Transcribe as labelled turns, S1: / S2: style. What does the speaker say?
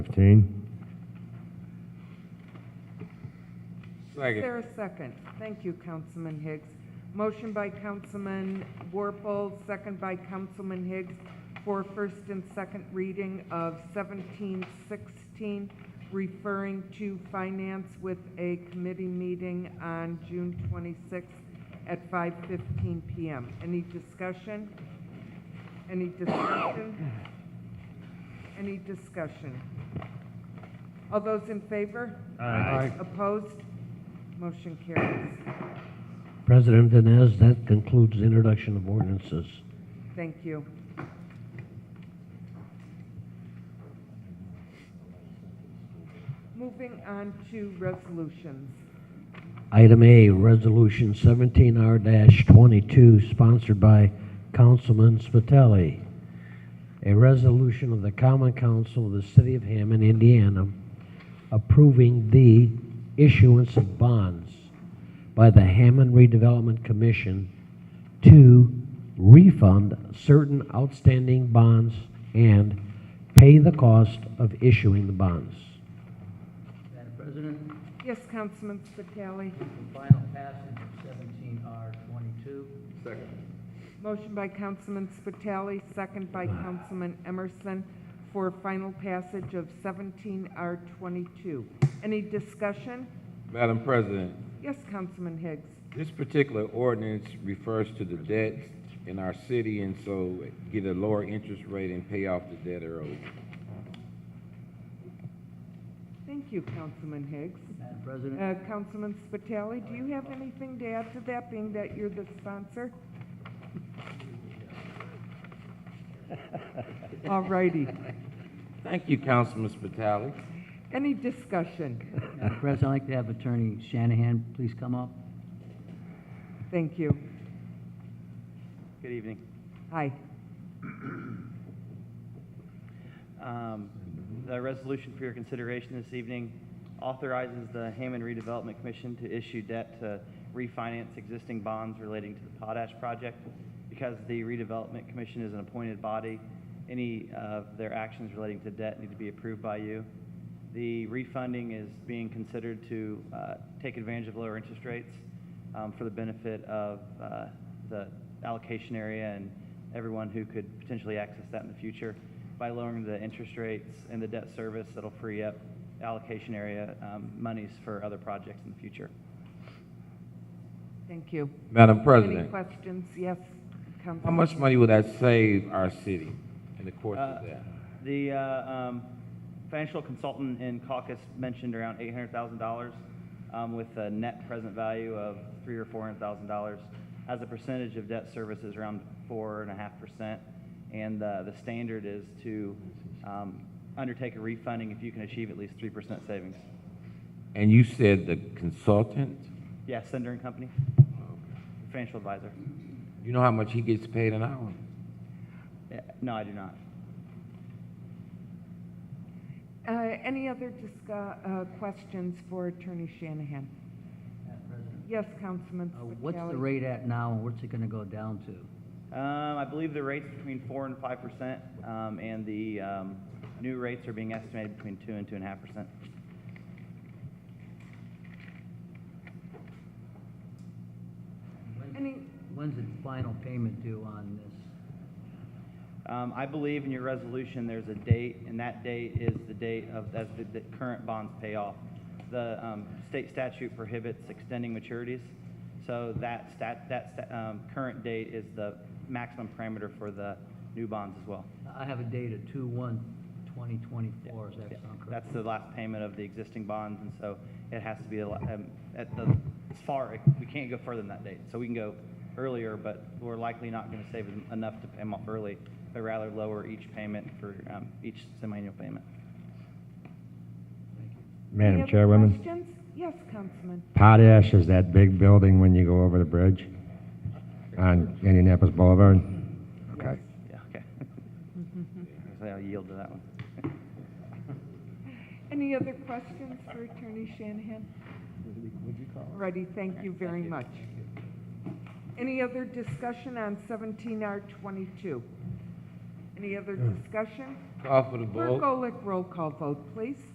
S1: 15.
S2: Is
S3: Second.
S2: there a second? Thank you, Councilman Higgs. Motion by Councilman Warple, second by Councilman Higgs for first and second reading of 1716, referring to finance with a committee meeting on June 26th at 5:15 PM. Any discussion? Any discussion? Any discussion? All those in favor?
S3: Aye.
S2: Opposed? Motion carries.
S1: President Vines, that concludes the introduction of ordinances.
S2: Thank you. Moving on to resolutions.
S1: Item A, Resolution 17R-22, sponsored by Councilman Spitali. A resolution of the Common Council of the City of Hammond, Indiana, approving the issuance of bonds by the Hammond Redevelopment Commission to refund certain outstanding bonds and pay the cost of issuing the bonds.
S4: Madam President,
S2: Yes, Councilman Spitali.
S4: for final passage of seventeen R twenty-two.
S3: Second.
S2: Motion by Councilman Spitali, second by Councilman Emerson for final passage of 17R22. Any discussion?
S3: Madam President,
S2: Yes, Councilman Higgs.
S3: this particular ordinance refers to the debt in our city, and so get a lower interest rate and pay off the debt early.
S2: Thank you, Councilman Higgs.
S4: Madam President,
S2: Uh, Councilman Spitali, do you have anything to add to that, being that you're the sponsor? All righty.
S3: Thank you, Councilman Spitali.
S2: Any discussion?
S4: Madam President, I'd like to have Attorney Shanahan please come up.
S2: Thank you.
S5: Good evening.
S2: Hi.
S5: Um, The resolution for your consideration this evening authorizes the Hammond Redevelopment Commission to issue debt to refinance existing bonds relating to the potash project. Because the redevelopment commission is an appointed body, any of their actions relating to debt need to be approved by you. The refunding is being considered to uh, take advantage of lower interest rates um, for the benefit of uh, the allocation area and everyone who could potentially access that in the future. By lowering the interest rates and the debt service, it'll free up allocation area um, monies for other projects in the future.
S2: Thank you.
S3: Madam
S2: Any
S3: President,
S2: questions? Yes,
S3: how
S2: Councilman.
S3: much money would that save our city in the course
S5: Uh,
S3: of that?
S5: The uh, um, financial consultant in caucus mentioned around $800,000 um, with a net present value of three or $400,000. As a percentage of debt service is around 4.5%, and uh, the standard is to um, undertake a refunding if you can achieve at least 3% savings.
S3: And you said the consultant,
S5: Yeah, Sender and Company, financial advisor.
S3: you know how much he gets paid an hour?
S5: Yeah, No, I do not.
S2: Uh, Any other discuss, questions for Attorney Shanahan?
S4: Madam President,
S2: Yes, Councilman
S4: uh,
S2: Spitali.
S4: what's the rate at now and what's it gonna go down to?
S5: Um, I believe the rate's between four and five percent, um, and the, um, new rates are being estimated between two and two and a half percent.
S4: When-
S2: Any,
S4: When's the final payment due on this?
S5: Um, I believe in your resolution, there's a date, and that date is the date of, that's the, the current bonds pay off. The, um, state statute prohibits extending maturities, so that stat, that, sta- um, current date is the maximum parameter for the new bonds as well.
S4: I have a date of two-one, twenty-twenty-four, is that sound correct?
S5: That's the last payment of the existing bonds, and so it has to be a lot- um, at the, as far, we can't go further than that date. So we can go earlier, but we're likely not going to save en- enough to pay them off early, but rather lower each payment for um, each semi-annual payment.
S4: Thank you.
S2: any
S6: Madam
S2: other
S6: Chairwoman,
S2: questions? Yes, Councilman.
S6: Potash is that big building when you go over the bridge on Indianapolis Boulevard? Okay.
S5: Yeah, okay. So I'll yield to that one.
S2: Any other questions for Attorney Shanahan? Ready, thank you very much. Any other discussion on 17R22? Any other discussion?
S3: Call for the vote.
S2: Clerk Golick, roll call vote, please.